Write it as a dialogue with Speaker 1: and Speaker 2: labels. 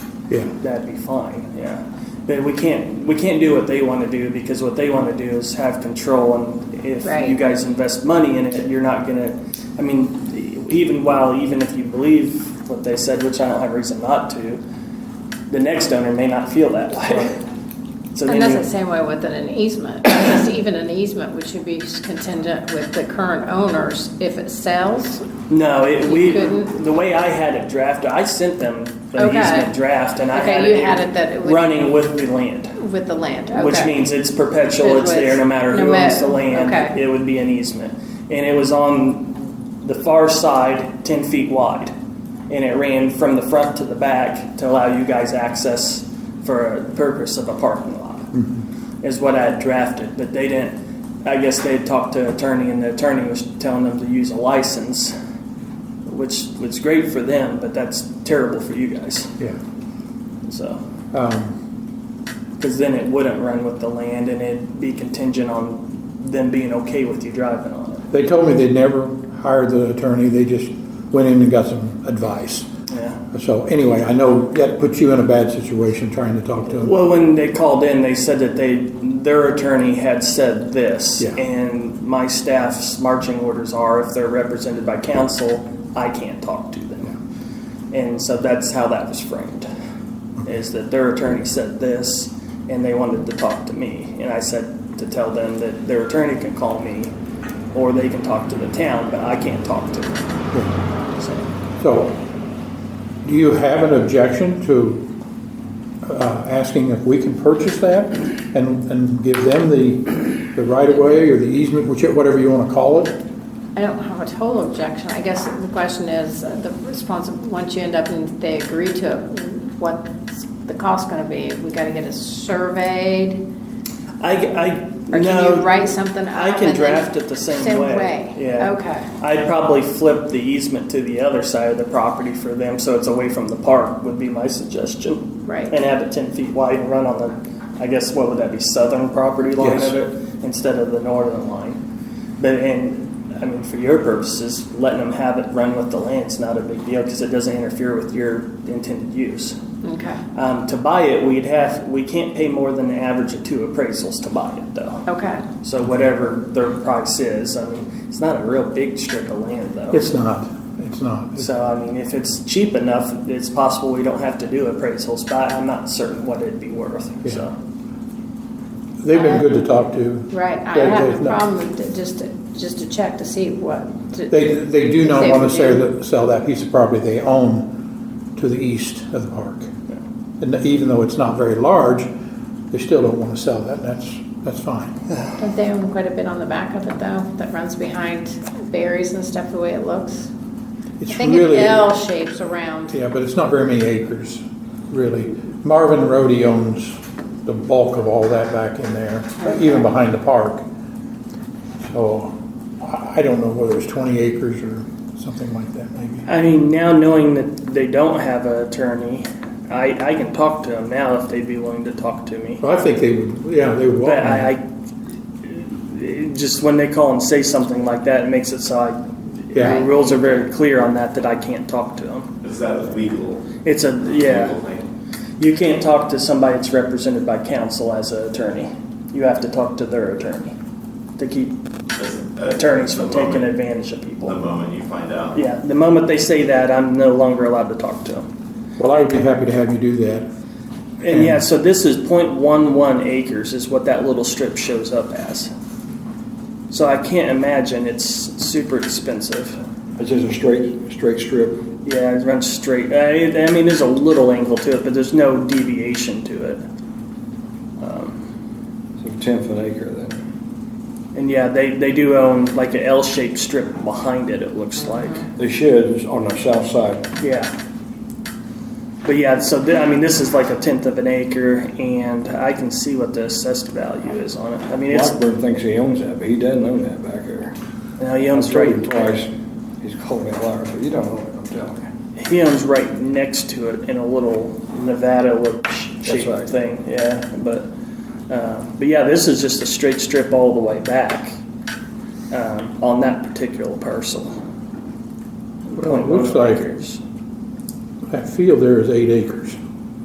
Speaker 1: Yeah.
Speaker 2: that'd be fine, yeah. But we can't, we can't do what they want to do because what they want to do is have control and if
Speaker 3: Right.
Speaker 2: you guys invest money in it, you're not gonna, I mean, even while, even if you believe what they said, which I don't have reason not to, the next owner may not feel that way. So
Speaker 3: And that's the
Speaker 2: then
Speaker 3: same way with an easement, because even an easement, which would be contingent with the current owners, if it sells,
Speaker 2: you, no, it,
Speaker 3: you
Speaker 2: we,
Speaker 3: couldn't-
Speaker 2: the way I had it drafted, I sent them the
Speaker 3: Okay.
Speaker 2: easement draft and I
Speaker 3: Okay,
Speaker 2: had
Speaker 3: you had it that
Speaker 2: it
Speaker 3: it would-
Speaker 2: running with the land.
Speaker 3: with the land, okay.
Speaker 2: which means it's perpetual,
Speaker 3: It
Speaker 2: it's there
Speaker 3: was-
Speaker 2: no matter
Speaker 3: no
Speaker 2: who owns
Speaker 3: matter-
Speaker 2: the land,
Speaker 3: okay.
Speaker 2: it would be an easement. And it was on the far side, ten feet wide, and it ran from the front to the back to allow you guys access for a purpose of a parking lot, is what I had drafted, but they didn't, I guess they had talked to an attorney, and the attorney was telling them to use a license, which was great for them, but that's terrible for you guys,
Speaker 1: Yeah.
Speaker 2: so.
Speaker 1: Um,
Speaker 2: Because then it wouldn't run with the land and it'd be contingent on them being okay with you driving on it.
Speaker 1: They told me they never hired the attorney, they just went in and got some advice.
Speaker 2: Yeah.
Speaker 1: So anyway, I know that puts you in a bad situation trying to talk to them.
Speaker 2: Well, when they called in, they said that they their attorney had said this,
Speaker 1: Yeah.
Speaker 2: and my staff's marching orders are if they're represented by counsel, I can't talk to them. And so that's how that was framed, is that their attorney said this, and they wanted to talk to me, and I said to tell them that their attorney can call me, or they can talk to the town, but I can't talk to them. So,
Speaker 1: So, do you have an objection to uh, asking if we can purchase that and, and give them the, the right of way or the easement, whichever, whatever you want to call it?
Speaker 3: I don't have a total objection. I guess the question is, uh, the responsible, once you end up and they agree to it, what's the cost gonna be? We gotta get it surveyed?
Speaker 2: I, I
Speaker 3: Or
Speaker 2: no,
Speaker 3: can you write something up?
Speaker 2: I can
Speaker 3: and then-
Speaker 2: draft it the same, way. Yeah.
Speaker 3: Okay.
Speaker 2: I'd probably flip the easement to the other side of the property for them, so it's away from the park. Would be my suggestion.
Speaker 3: Right.
Speaker 2: And have it ten feet wide and run on the, I guess what would that be, southern property line
Speaker 1: Yes.
Speaker 2: of it instead of the northern line. But and I mean, for your purposes, letting them have it run with the land's not a big deal because it doesn't interfere with your intended use.
Speaker 3: Okay,
Speaker 2: Um, to buy it, we'd have we can't pay more than the average of two appraisals to buy it though.
Speaker 3: okay.
Speaker 2: So whatever their price is, I mean, it's not a real big strip of land though.
Speaker 1: It's not, it's not.
Speaker 2: So I mean, if it's cheap enough, it's possible we don't have to do appraisals, but I'm not certain what it'd be worth.
Speaker 1: Yeah.
Speaker 2: So
Speaker 1: They've been good to talk to.
Speaker 3: Right, I
Speaker 1: They-
Speaker 3: have
Speaker 1: they've
Speaker 3: a
Speaker 1: not-
Speaker 3: problem with it, just to, just to check to see what. to-
Speaker 1: They, they do not
Speaker 3: They
Speaker 1: want to
Speaker 3: would
Speaker 1: sell,
Speaker 3: do.
Speaker 1: that- sell that piece of property they own to the east of the park. And even though it's not very large, they still don't want to sell that, and that's, that's fine.
Speaker 3: Don't they own quite a bit on the back of it though, that runs behind berries and stuff, the way it looks? I
Speaker 1: It's
Speaker 3: think it
Speaker 1: really.
Speaker 3: L shapes around.
Speaker 1: Yeah, but it's not very many acres, really. Marvin Rhodey owns the bulk of all that back in there, even behind the park. So I I don't know whether it's 20 acres or something like that, maybe.
Speaker 2: I mean, now knowing that they don't have an attorney, I, I can talk to them now if they'd be willing to talk to me.
Speaker 1: Well, I think they would, yeah, they would
Speaker 2: But
Speaker 1: welcome
Speaker 2: I,
Speaker 1: it.
Speaker 2: I it just when they call and say something like that, it makes it so I.
Speaker 1: Yeah.
Speaker 2: The rules are very clear on that that I can't talk to them.
Speaker 4: Is that legal?
Speaker 2: It's a yeah.
Speaker 4: Legal thing?
Speaker 2: You can't talk to somebody that's represented by counsel as an attorney. You have to talk to their attorney to keep
Speaker 4: Doesn't- uh,
Speaker 2: attorneys
Speaker 4: the
Speaker 2: from taking
Speaker 4: moment-
Speaker 2: advantage of
Speaker 4: The
Speaker 2: people.
Speaker 4: moment you find out.
Speaker 2: Yeah, the moment they say that, I'm no longer allowed to talk to them.
Speaker 1: Well, I would be happy to have you do that.
Speaker 2: And yeah, so this is .11 acres is what that little strip shows up as. So I can't imagine it's super expensive.
Speaker 5: It's just a straight, straight strip.
Speaker 2: Yeah, it runs straight. I, I mean, there's a little angle to it, but there's no deviation to it.
Speaker 5: It's a tenth of an acre then.
Speaker 2: And yeah, they, they do own like an L-shaped strip behind it. It looks like.
Speaker 5: They should, it's on the south side.
Speaker 2: Yeah. But yeah, so th- I mean, this is like a tenth of an acre, and I can see what the assessed value is on it. I mean, it's
Speaker 5: Blackburn thinks he owns that, but he doesn't own that back there.
Speaker 2: now he owns
Speaker 5: I've told him
Speaker 2: right.
Speaker 5: Twice, he's called me a liar, but you don't own it, I'm telling you.
Speaker 2: He owns right next to it in a little Nevada look shaped
Speaker 5: right.
Speaker 2: thing. Yeah, but uh, but yeah, this is just a straight strip all the way back um, on that particular parcel.
Speaker 1: Well, it looks like-
Speaker 2: Acres.
Speaker 1: That field there is eight acres.